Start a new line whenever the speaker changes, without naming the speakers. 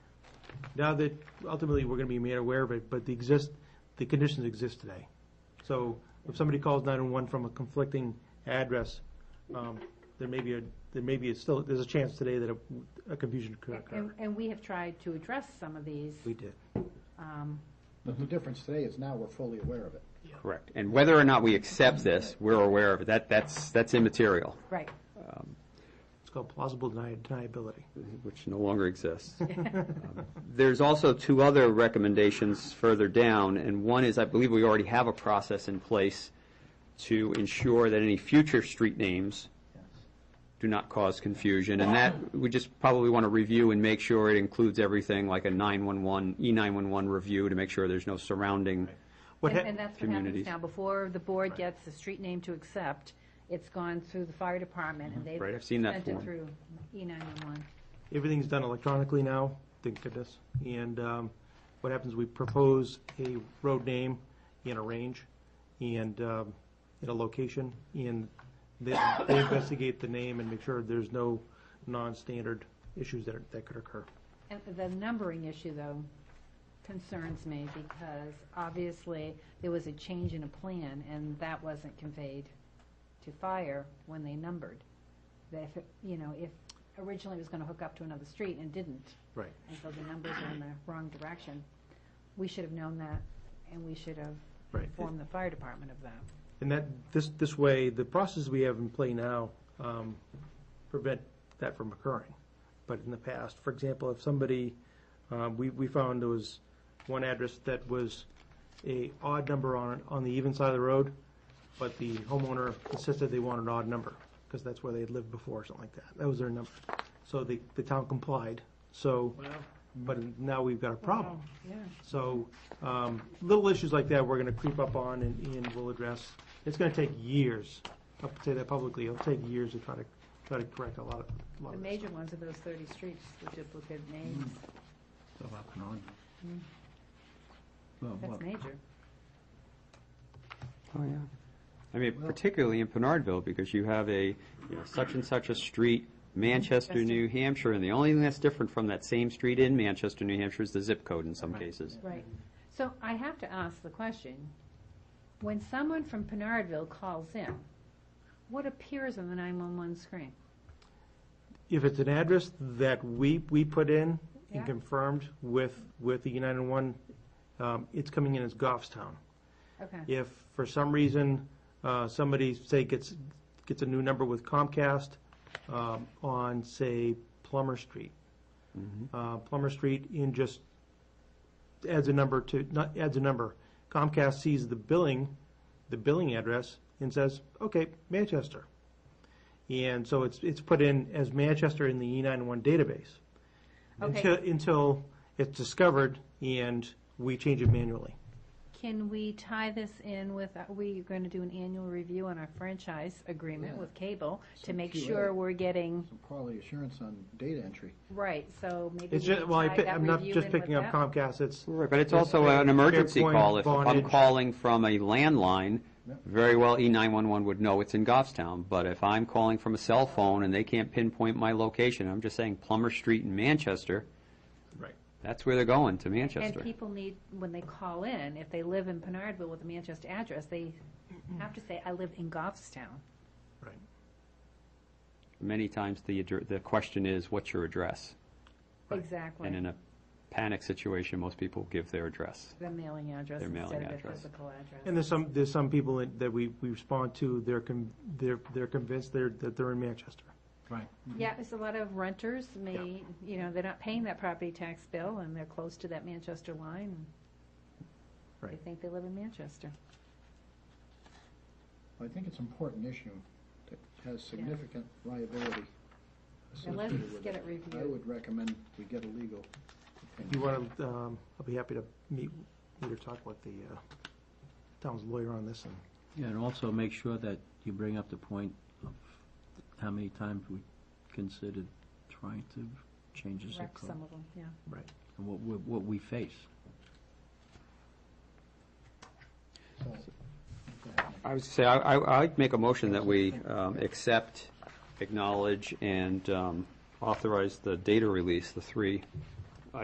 now that ultimately we're gonna be made aware of it, but the exist, the conditions exist today. So if somebody calls nine-one-one from a conflicting address, um, there may be a, there may be, a still, there's a chance today that a, a confusion could
And-
occur.
And, and we have tried to address some of these.
We did.
um,
But the difference today is now we're fully aware of it.
Correct. And whether or not we accept this, we're aware of it. That, that's, that's immaterial,
Right.
It's called plausible deni- deniability.
which no longer exists. Um, There's also two other recommendations further down, and one is, I believe we already have a process in place to ensure that any future street names do not cause confusion, and that, we just probably want to review and make sure it includes everything, like a 911, E911 review to make sure there's no surrounding
What
And
hap-
and that's what happens
Communities.
now. Before the board gets a street name to accept, it's gone through the fire department and they've.
Mm-hmm. Right, I've seen that
Sent it
form.
through E nine-one-one.
Everything's done electronically now, thank goodness. And um, what happens, we propose a road name and a range and, um, and a location, and they they investigate the name and make sure there's no non-standard issues that, are- that could occur.
And the numbering issue, though, concerns me because obviously there was a change in a plan and that wasn't conveyed to fire when they numbered. That if, it- you know, if originally it was gonna hook up to another street and didn't,
Right.
and so the numbers are in the wrong direction. We should have known that, and we should have
Right.
informed the fire department of that.
And that, this, this way, the process we have in play now um, prevent that from occurring. But in the past, for example, if somebody, um, we, we found there was one address that was a odd number on, it on the even side of the road, but the homeowner insisted they wanted an odd number, because that's where they had lived before, or something like that. That was their number. So the, the town complied, so, but now we've got a problem.
Oh, Yeah.
So, um, little issues like that, we're gonna creep up on and, and we'll address. It's gonna take years, I'll say that publicly, it'll take years to try to, try to correct a lot of, a lot
The
of this.
major ones are those thirty streets, the duplicate names.
Mm.
So up and on. Well,
Mm. That's
what-
major.
Oh, yeah. I mean, particularly in Pinardville, because you have a, you know, such and such a street, Manchester, New Hampshire, and the only thing that's different from that same street in Manchester, New Hampshire is the zip code in some cases.
Right. So I have to ask the question, when someone from Pinardville calls in, what appears on the nine-one-one screen?
If it's an address that we, we put in
Yeah.
and confirmed with, with the United One, um, it's coming in as Goffstown.
Okay,
If for some reason, uh, somebody, say, gets, gets a new number with Comcast um, on, say, Plummer Street. Uh, Plummer Street in just adds a number to, not, adds a number. Comcast sees the billing, the billing address and says, okay, Manchester. And so it's, it's put in as Manchester in the E91 database. Until,
okay.
until it's discovered and we change it manually.
Can we tie this in with, are we going to do an annual review on our franchise agreement
Yeah.
with cable to
Some
make
QA.
sure we're getting
Some quality assurance on data entry.
Right, so maybe
It's
we
just, well, I
tie
pick-
that
I'm not
review
just
in with
picking up
that.
Comcast, it's,
Right, but it's
Yes,
also an emergency
Fairpoint,
call. If I'm
Vonage.
calling from a landline,
Yep.
very well E E911 would know it's in Goffstown. But if I'm calling from a cell phone and they can't pinpoint my location, I'm just saying Plummer Street in Manchester,
right.
that's where they're going, to
And
Manchester.
people need, when they call in, if they live in Pinardville with a Manchester address, they have to say, I live in Goffstown.
Right.
Many times the, addre- the question is, what's your address?
Right.
Exactly.
And in a panic situation, most people give their address.
The mailing address
Their
instead
mailing
of their
address.
physical address.
And there's some, there's some people that- that we, we respond to, they're, con- they're, they're convinced they're, that they're in Manchester.
Right.
Yeah, there's a lot of renters may, you know, they're not paying that property tax bill and they're close to that Manchester line. and They
Right.
think they live in Manchester.
I think it's an important issue that has significant liability
And let's
associated with
get
it.
it
I
reviewed.
would recommend we get a legal.
If you want to, um, I'll be happy to meet, meet or talk with the, uh, town's lawyer on this and
Yeah, and also make sure that you bring up the point of how many times we considered trying to change the zip
Wreck
code
some of them, yeah.
and what, we- what we face.
I was gonna say, I, I- I'd make a motion that we um, accept, acknowledge, and um, authorize the data release, the three